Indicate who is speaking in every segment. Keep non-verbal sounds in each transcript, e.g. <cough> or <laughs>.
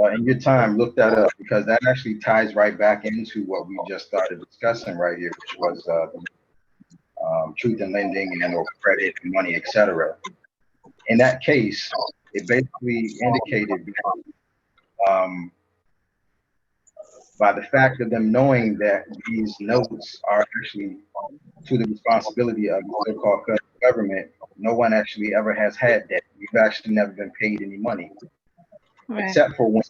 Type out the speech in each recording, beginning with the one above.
Speaker 1: uh, in your time, look that up because that actually ties right back into what we just started discussing right here, which was uh, um, truth in lending and or credit and money, et cetera. In that case, it basically indicated um, by the fact of them knowing that these notes are actually to the responsibility of the so-called government, no one actually ever has had that. We've actually never been paid any money
Speaker 2: Right.
Speaker 1: except for when,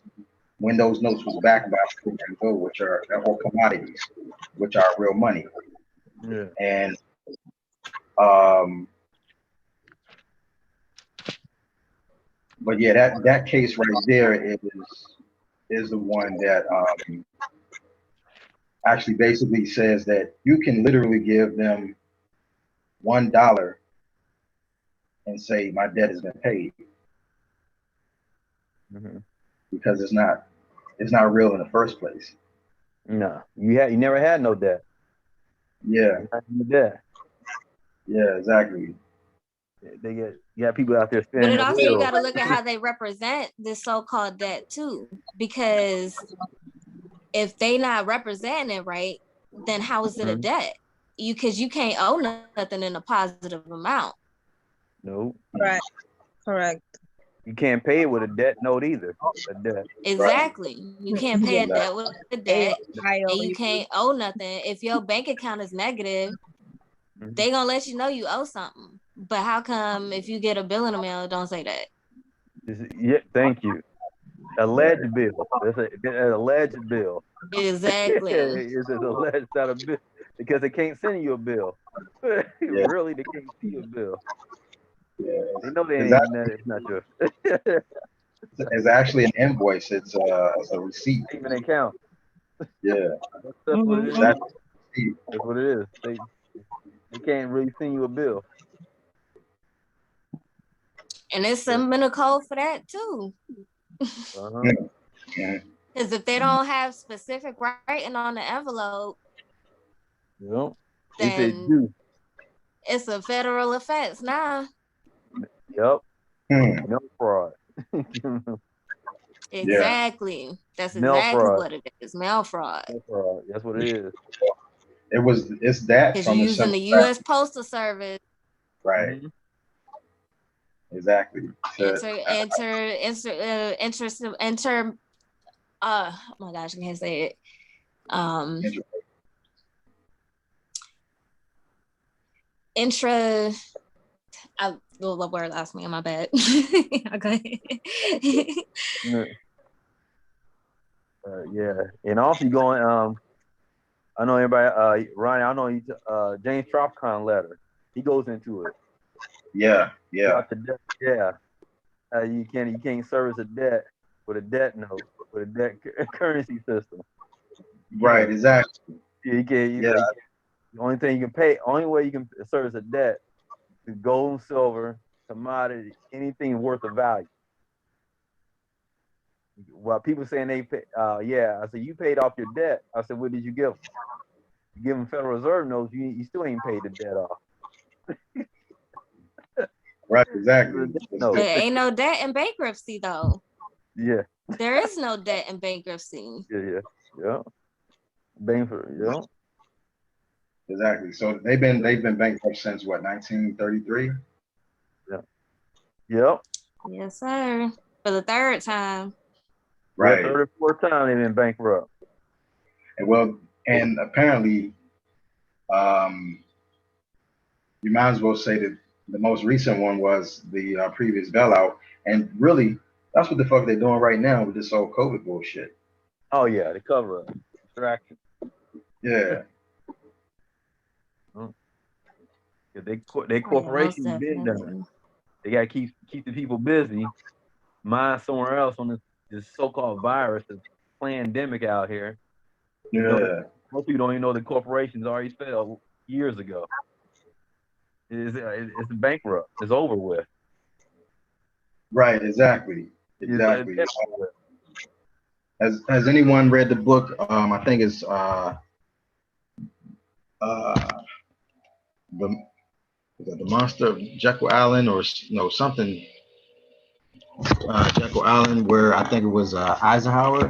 Speaker 1: when those notes was backed by Fitch and Gold, which are, or commodities, which are real money.
Speaker 3: Yeah.
Speaker 1: And, um, but yeah, that, that case right there is, is the one that, um, actually basically says that you can literally give them one dollar and say, my debt has been paid.
Speaker 3: Mhm.
Speaker 1: because it's not it's not real in the first place.
Speaker 3: No, you had you never had no debt.
Speaker 1: Yeah,
Speaker 3: You had no debt.
Speaker 1: yeah, exactly.
Speaker 3: They get you have people out there
Speaker 2: But
Speaker 3: spending.
Speaker 2: it
Speaker 3: their
Speaker 2: also you
Speaker 3: bills.
Speaker 2: gotta look at how they represent the so-called debt too, because if they not representing it right, then how is it a
Speaker 3: Mhm.
Speaker 2: debt? You cause you can't owe nothing in a positive amount.
Speaker 3: no,
Speaker 4: Right. Correct.
Speaker 3: you can't pay it with a debt note either. A debt.
Speaker 2: Exactly. You can't pay a debt with a debt. And you
Speaker 4: AOL.
Speaker 2: can't owe nothing. If your bank account is negative,
Speaker 3: Mhm.
Speaker 2: they gonna let you know you owe something. But how come if you get a bill in the mail, it don't say that?
Speaker 3: Is- yeah, thank you. Alleged bill. That's a, that's an alleged bill.
Speaker 2: Exactly.
Speaker 3: it's an alleged not a bill because they can't send you a bill. <laughs> really, they can't see a bill.
Speaker 1: Yeah,
Speaker 3: They know they ain't.
Speaker 1: Exactly.
Speaker 3: It's not your.
Speaker 1: it's, it's actually an invoice. It's a, it's a receipt.
Speaker 3: even account.
Speaker 1: Yeah,
Speaker 3: That's, that's what
Speaker 2: Mm-hmm.
Speaker 3: it is.
Speaker 1: that's
Speaker 3: That's what it is. They they can't really send you a bill.
Speaker 2: And it's some minute code for that too.
Speaker 3: Uh-huh.
Speaker 1: yeah,
Speaker 2: Because if they don't have specific writing on the envelope,
Speaker 3: Yep. They said
Speaker 2: then
Speaker 3: you.
Speaker 2: it's a federal offense now.
Speaker 3: Yep.
Speaker 1: Hmm,
Speaker 3: No <laughs> fraud.
Speaker 2: Exactly. That's
Speaker 3: Mail
Speaker 2: exactly
Speaker 3: fraud.
Speaker 2: what it is. Mail fraud.
Speaker 3: no fraud. That's what it is.
Speaker 1: it was it's that
Speaker 2: Because you're
Speaker 1: from the
Speaker 2: using
Speaker 1: simple
Speaker 2: the
Speaker 1: fact-
Speaker 2: US Postal Service
Speaker 1: right? Exactly. So,
Speaker 2: enter enter enter uh, interest enter uh oh my gosh, I can't say it. Um
Speaker 1: Inter-
Speaker 2: intra I the the word lost me on my bad. <laughs> okay. <laughs>
Speaker 3: Yeah. Mm-hmm. Uh, yeah. And also you going um I know everybody uh Ryan, I know you uh James Tropcon letter. He goes into it.
Speaker 1: yeah, yeah,
Speaker 3: About the debt, yeah. Uh, you can't you can't service a debt with a debt note with a debt <laughs> cu- currency system.
Speaker 1: right, exactly.
Speaker 3: Yeah, you can. You
Speaker 1: Yeah.
Speaker 3: Like, the only thing you can pay, only way you can service a debt is gold and silver, commodity, anything worth a value. While people saying they pay, uh, yeah, I said you paid off your debt. I said, what did you give? 'em? You give them Federal Reserve notes. You, you still ain't paid the debt off.
Speaker 1: Right, exactly.
Speaker 3: No.
Speaker 2: There ain't no debt in bankruptcy though.
Speaker 3: Yeah,
Speaker 2: There is no debt in bankruptcy.
Speaker 3: yeah, yeah, yeah. Bang for yeah.
Speaker 1: Exactly. So they've been they've been bankrupt since what 1933.
Speaker 3: Yep.
Speaker 2: Yes, sir. For the third time.
Speaker 1: Right.
Speaker 3: Third or fourth time they've been bankrupt.
Speaker 1: And well, and apparently, um, you might as well say that the most recent one was the uh, previous bailout, and really, that's what the fuck they're doing right now with this whole COVID bullshit.
Speaker 3: Oh yeah, the cover up, distraction.
Speaker 1: Yeah,
Speaker 3: Cause they co- they
Speaker 2: Oh, yeah, most
Speaker 3: corporations been done.
Speaker 2: definitely.
Speaker 3: They gotta keep keep the people busy. Mind somewhere else on this, this so-called virus, this pandemic out here.
Speaker 1: yeah,
Speaker 3: Most people don't even know the corporations already failed years ago. It's, it's bankrupt. It's over with.
Speaker 1: right, exactly,
Speaker 3: It's-
Speaker 1: exactly.
Speaker 3: it's over with.
Speaker 1: Has Has anyone read the book? Um, I think it's uh, uh, the the monster of Jekyll Island or s- no something. uh, Jekyll Island where I think it was uh, Eisenhower